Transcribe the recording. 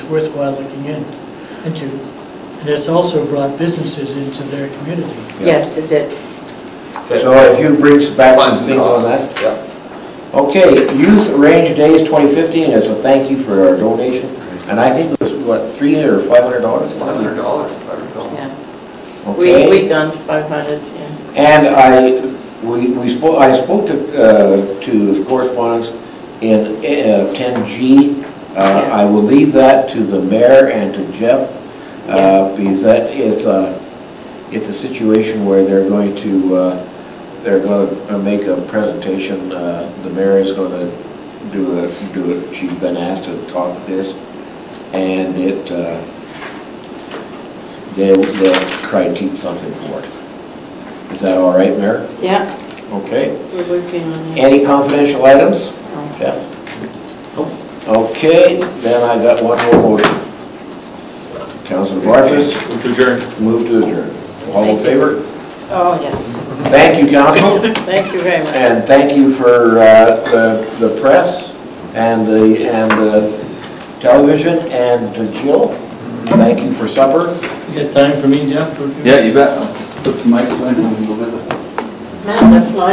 worthwhile looking in- into. And it's also brought businesses into their community. Yeah. Yes, it did. That So if you bring back some funds things on costs. that. Yep. Okay, Youth Range Days 2015, as a thank you for our donation. And I think it was, what, three or $500? Five hundred dollars, if I recall. Yeah. We, Okay. we've gone to 500, yeah. And I, we we spoke, I spoke to, uh, to the correspondence in uh, 10G. Uh, Yeah. I will leave that to the mayor and to Jeff, Yeah. uh, because that is a, it's a situation where they're going to, uh, they're going to make a presentation. uh, The mayor is going to do it, do it, she's been asked to talk to this, and it, uh, they'll, they'll try to keep something for it. Is that all right, Mayor? Yeah, Okay. we're working on it. Any confidential items? Oh. Jeff? Okay, then I got one more motion. Councilor Barfus, Move to adjourn. move to adjourn. All in Thank you. favor? Oh, yes. Thank you, council, Thank you very much. and thank you for uh, the the press and the, and the television, and to Jill, thank you for supper. You got time for me, Jeff? Yeah, you bet. I'll Just put some mics on and we'll go visit. Matt, that's my